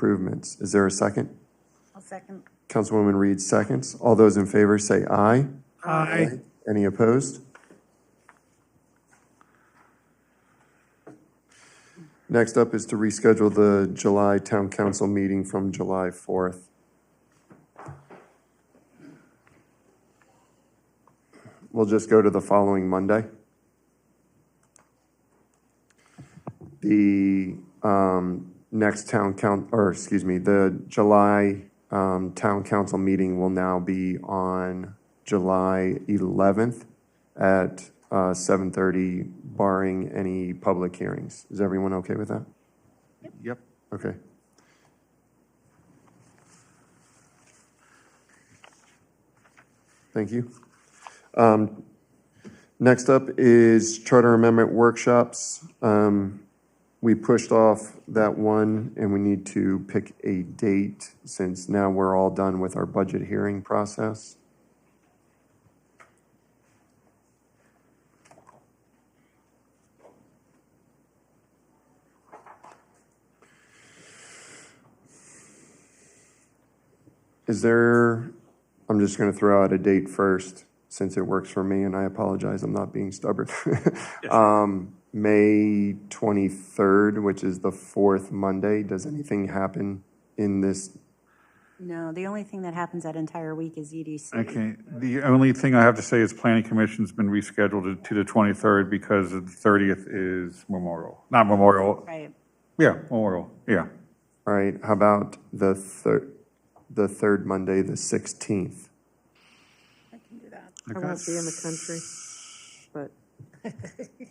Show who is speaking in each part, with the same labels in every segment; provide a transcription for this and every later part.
Speaker 1: improvements. Is there a second?
Speaker 2: I'll second.
Speaker 1: Councilwoman Reed seconds. All those in favor say aye.
Speaker 3: Aye.
Speaker 1: Any opposed? Next up is to reschedule the July Town Council meeting from July 4th. We'll just go to the following Monday. The um, next town count, or excuse me, the July um, Town Council meeting will now be on July 11th at uh, 7:30, barring any public hearings. Is everyone okay with that?
Speaker 3: Yep.
Speaker 1: Okay. Thank you. Um, Next up is charter amendment workshops. Um, We pushed off that one, and we need to pick a date since now we're all done with our budget hearing process. Is there, I'm just going to throw out a date first, since it works for me, and I apologize, I'm not being stubborn. Um, May 23rd, which is the fourth Monday, does anything happen in this?
Speaker 2: No, the only thing that happens that entire week is E EDC.
Speaker 3: Okay, the only thing I have to say is planning commission's been rescheduled to- to the 23rd because the 30th is Memorial, not Memorial,
Speaker 2: Right.
Speaker 3: yeah, Memorial, yeah.
Speaker 1: All right, how about the third, the third Monday, the 16th?
Speaker 4: I won't be in the country, but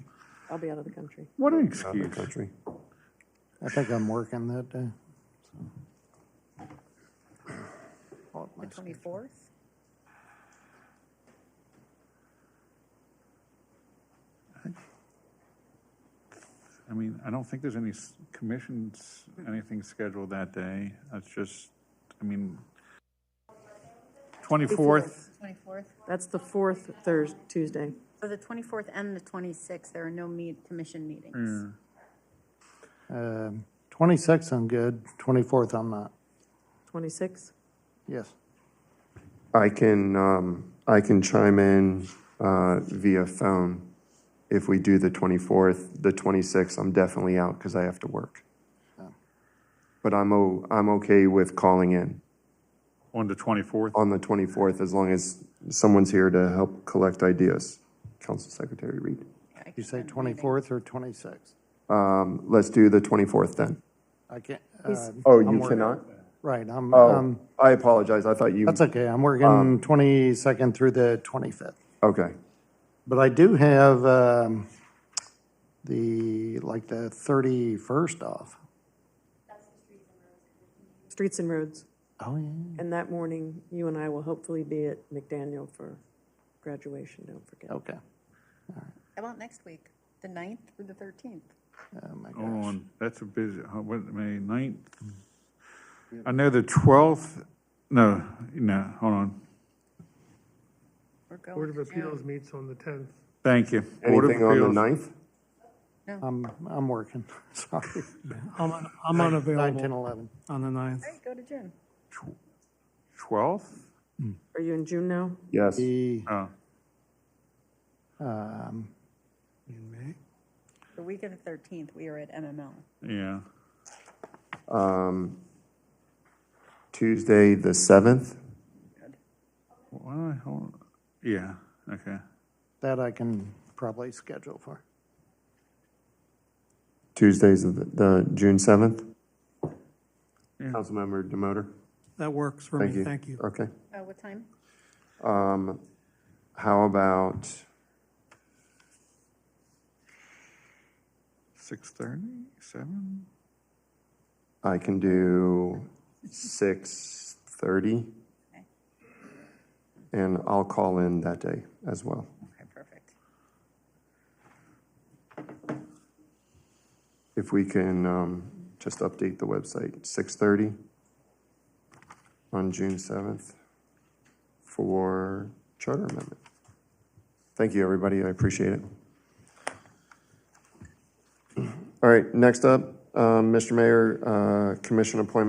Speaker 4: I'll be out of the country.
Speaker 3: What an
Speaker 1: Out of the
Speaker 3: excuse.
Speaker 1: country.
Speaker 5: I think I'm working that day. so.
Speaker 2: The 24th?
Speaker 3: I mean, I don't think there's any s- commissions, anything scheduled that day. That's just, I mean, 24th,
Speaker 2: 24th.
Speaker 4: That's the fourth Thursday, Tuesday.
Speaker 2: So the 24th and the 26th, there are no meet, commission meetings.
Speaker 6: Hmm.
Speaker 5: Um, 26th, I'm good. 24th, I'm not.
Speaker 4: Twenty-six?
Speaker 5: Yes.
Speaker 1: I can, um, I can chime in, uh, via phone if we do the 24th, the 26th, I'm definitely out because I have to work. But I'm o, I'm okay with calling in
Speaker 3: on the 24th.
Speaker 1: on the 24th as long as someone's here to help collect ideas. Council Secretary Reed.
Speaker 5: You say 24th or 26th?
Speaker 1: Um, let's do the 24th then.
Speaker 5: I can't.
Speaker 4: He's-
Speaker 5: um,
Speaker 1: Oh,
Speaker 5: I'm
Speaker 1: you
Speaker 5: working.
Speaker 1: cannot?
Speaker 5: Right, I'm,
Speaker 1: Oh, Um.
Speaker 5: um,
Speaker 1: I apologize. I thought you,
Speaker 5: that's okay. I'm working 22nd through the 25th.
Speaker 1: okay.
Speaker 5: But I do have, um, the, like, the 31st off.
Speaker 4: Streets and Roads.
Speaker 5: Oh, yeah.
Speaker 4: And that morning, you and I will hopefully be at McDaniel for graduation, don't forget.
Speaker 5: Okay.
Speaker 2: How about next week, the 9th or the 13th?
Speaker 5: Oh, my
Speaker 3: Hold
Speaker 5: gosh.
Speaker 3: on, that's a busy, huh, what, May 9th?
Speaker 1: Mm-hmm.
Speaker 3: I know the 12th, no, no, hold on.
Speaker 2: We're going
Speaker 6: Board of
Speaker 2: to June.
Speaker 6: Appeals meets on the 10th.
Speaker 3: Thank you. Board of
Speaker 1: Anything on the
Speaker 3: Appeals.
Speaker 1: 9th?
Speaker 5: I'm, I'm working. Sorry.
Speaker 6: I'm, un- I'm
Speaker 5: 9, 10,
Speaker 6: unavailable
Speaker 5: 11.
Speaker 6: on the 9th.
Speaker 2: All right, go to June.
Speaker 3: 12th?
Speaker 4: Are you in June now?
Speaker 1: Yes.
Speaker 5: The,
Speaker 3: Oh,
Speaker 5: um,
Speaker 6: In May?
Speaker 2: The week of the 13th, we are at MML.
Speaker 3: yeah.
Speaker 1: Um, Tuesday, the 7th?
Speaker 3: Why don't I, hold, yeah, okay.
Speaker 5: That I can probably schedule for.
Speaker 1: Tuesdays of the- the June 7th?
Speaker 3: Yeah.
Speaker 1: Councilmember Demoter?
Speaker 6: That works for
Speaker 1: Thank
Speaker 6: me,
Speaker 1: you.
Speaker 6: thank you.
Speaker 1: Okay.
Speaker 2: Uh, What time?
Speaker 1: Um, How about
Speaker 3: 6:30, 7?
Speaker 1: I can do 6:30? And I'll call in that day as well.
Speaker 2: Okay, perfect.
Speaker 1: If we can um, just update the website, 6:30 on June 7th for charter amendment. Thank you, everybody, I appreciate it. All right, next up, Um, Mr. Mayor, uh, commission appointments